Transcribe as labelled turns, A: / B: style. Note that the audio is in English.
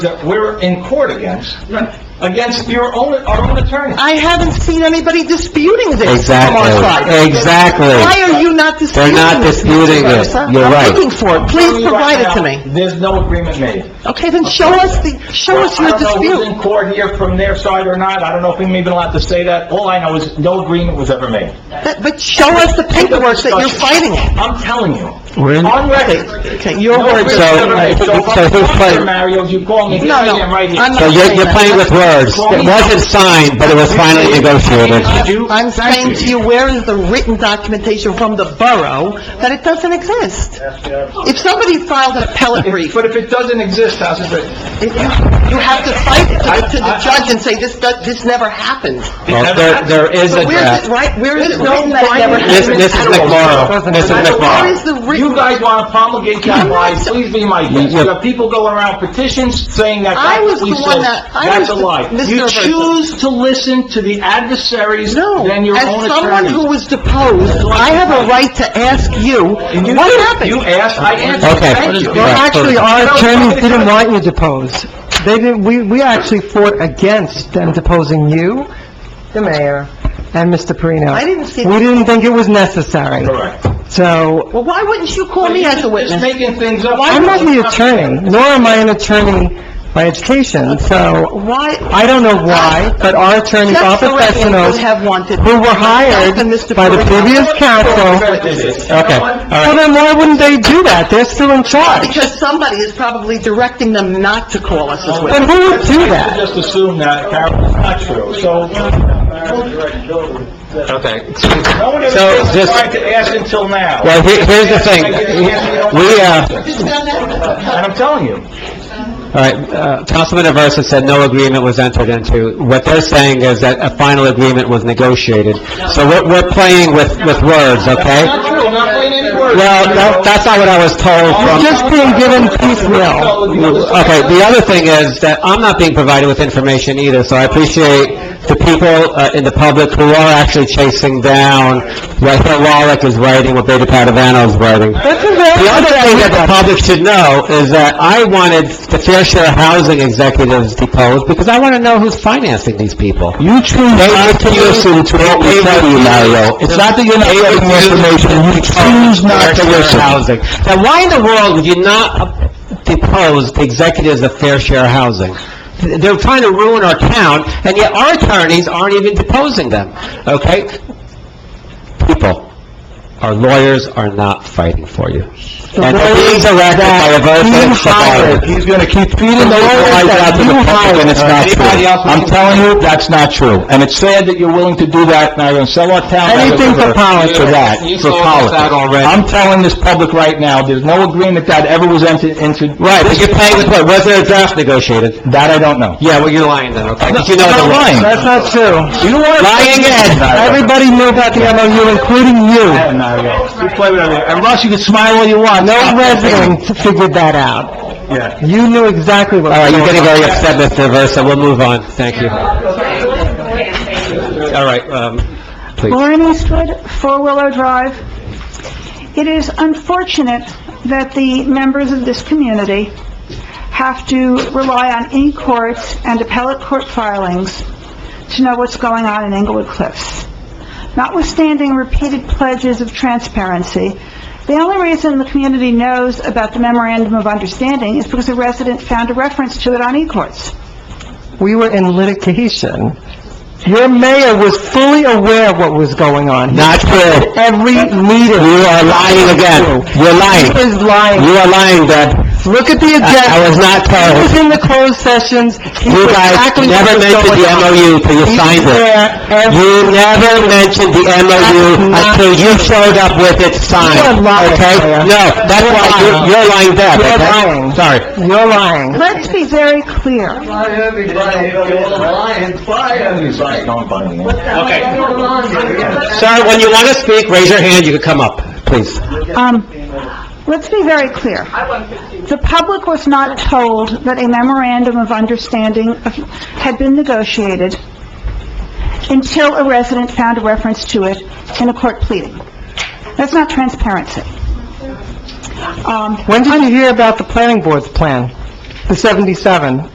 A: that we're in court against, against your own, our own attorney.
B: I haven't seen anybody disputing this from our side.
C: Exactly,
B: Why
C: exactly.
B: are you not disputing
C: They're
B: this?
C: not disputing
B: Mr.
C: it.
B: Garza?
C: You're right.
B: I'm looking for it, please provide it to
A: Right
B: me.
A: now, There's no agreement made.
B: Okay, then show us the, show us your
A: I don't know who's
B: dispute.
A: in court here from their side or not, I don't know if I'm even allowed to say that, all I know is no agreement was ever made.
B: But but show us the paperwork that you're fighting it.
A: I'm telling you,
C: We're in-
A: on
B: Okay,
A: record.
B: okay, your
A: No
B: words,
A: agreement
C: so-
A: was ever made. So if
C: so
A: I'm
C: who's
A: talking
C: fighting?
A: Mario, you call me,
B: No, no,
A: I am right here.
B: I'm not-
C: So you're, you're playing with words. It wasn't signed, but it was finally negotiated.
A: You-
B: I'm saying to you, where is the written documentation from the borough that it doesn't exist? If somebody filed an appellate brief,
A: But if it doesn't exist, how's it written?
B: it- you have to fight it to- to the judge and say, this, do- this never happened.
C: Well, there, there is a
B: But where's
C: draft.
B: it, right, where is it
A: No
B: written that it never
A: binding
C: This-
B: happened?
C: this is McMorro. This is
B: Where
C: McMorro.
B: is the written...
A: You guys want to promulgate that lie, please be my guest. You have people going around petitions saying that
B: I was
A: that's
B: the
A: what we
B: one
A: said.
B: that- I
A: That's
B: was
A: a
B: the-
A: lie.
B: Mr.
A: You
B: Versa.
A: choose to listen to the adversaries
B: No,
A: than your own
B: as someone who
A: attorneys.
B: was deposed, I have a right to ask you,
A: You-
B: what happened?
A: You asked, I answered,
C: Okay.
A: thank you.
C: Well,
D: Well,
C: Right.
D: actually,
A: No,
D: our attorneys didn't
A: but-
D: want you deposed. They didn't, we, we actually fought against them deposing you, the mayor, and Mr. Perino.
B: I didn't see-
D: We didn't think it was necessary.
A: Correct.
D: So,
B: Well, why wouldn't you call me as a
A: Just
B: witness?
A: making things up.
D: I'm not the attorney, nor am I an attorney by education, so
B: Why,
D: I don't know why, but our attorneys are
B: Jeff Florentine
D: professionals
B: would have wanted...
D: who were hired
B: And Mr.
D: by the
B: Perino.
D: previous council.
A: Okay,
C: Okay,
D: Well,
C: all right.
D: then why wouldn't they do that? They're still in charge.
B: Because somebody is probably directing them not to call us as
D: Then
B: witnesses.
D: who would do that?
A: Just assume that, Carol, it's not true, so... uh,
C: Okay.
A: No one
C: So,
A: ever
C: just-
A: tried to ask until now.
C: Well, here- here's the thing. We, uh,
A: And I'm telling you.
C: all right, uh, Councilman Aversa said no agreement was entered into. What they're saying is that a final agreement was negotiated. So we're, we're playing with, with words, okay?
A: Not true, I'm not playing any words.
C: Well, that- that's not what I was told from...
D: Just being given piecemeal.
C: Okay, the other thing is that I'm not being provided with information either, so I appreciate the people uh, in the public who are actually chasing down what Hill Wallach is writing, what Beta Padavano's writing.
D: That's a very...
C: The other thing that the public should know is that I wanted the fair share housing executives deposed, because I want to know who's financing these people.
E: You choose not to listen to what we tell you, Mario. It's not that you're not getting the information, you choose not to
C: Fair Share
E: listen.
C: Housing. Now, why in the world would you not depose the executives of Fair Share Housing? They're trying to ruin our town, and yet our attorneys aren't even deposing them, okay? People, our lawyers are not fighting for you. And they're being directed by a vote
E: He
C: of
E: hired, he's gonna keep feeding those lies out to the public, and it's not
C: Anybody
E: true.
C: else?
E: I'm telling you, that's not true.
A: And it's sad that you're willing to do that, now you're gonna sell our town.
E: Anything for politics, for that,
C: You
E: for
C: sold us
E: politics.
C: out already.
A: I'm telling this public right now, there's no agreement that ever was entered into.
C: Right, but you're paying with what? Was there a draft negotiated?
A: That I don't know.
C: Yeah, well, you're lying then, okay? 'Cause you know the
E: I'm not
C: law.
E: lying.
D: That's not true.
A: You want
C: Lying again.
D: Everybody knew about the MOU, including you.
A: You play with everything. And Russ, you can smile all you want.
D: No resident figured that out.
A: Yeah.
D: You knew exactly what...
C: All right, you're getting very upset, Mr. Versa, we'll move on, thank you. All right, um, please.
F: Lauren Eastwood, Four Willow Drive. It is unfortunate that the members of this community have to rely on e-courts and appellate court filings to know what's going on in Englewood Cliffs. Notwithstanding repeated pledges of transparency, the only reason the community knows about the memorandum of understanding is because a resident found a reference to it on e-courts.
D: We were in litigation. Your mayor was fully aware of what was going on.
C: Not true.
D: Every meeting...
C: You are lying again. You're
D: He
C: lying.
D: was lying.
C: You are lying, Deb.
D: Look at the agenda.
C: I was not
D: He was
C: told.
D: in the closed sessions.
C: You guys never mentioned the MOU till you signed it. You never mentioned the MOU until you showed up with it signed,
D: You are lying,
C: okay?
D: Mayor.
C: No, that's
D: You're
C: why, you're-
D: lying.
C: you're lying, Deb,
D: You're
C: okay?
D: lying.
C: Sorry.
D: You're lying.
F: Let's be very clear.
C: Sir, when you want to speak, raise your hand, you can come up, please.
F: Um, let's be very clear. The public was not told that a memorandum of understanding of- had been negotiated until a resident found a reference to it in a court pleading. That's not transparency. Um,
D: When did you hear about the planning board's plan? The 77?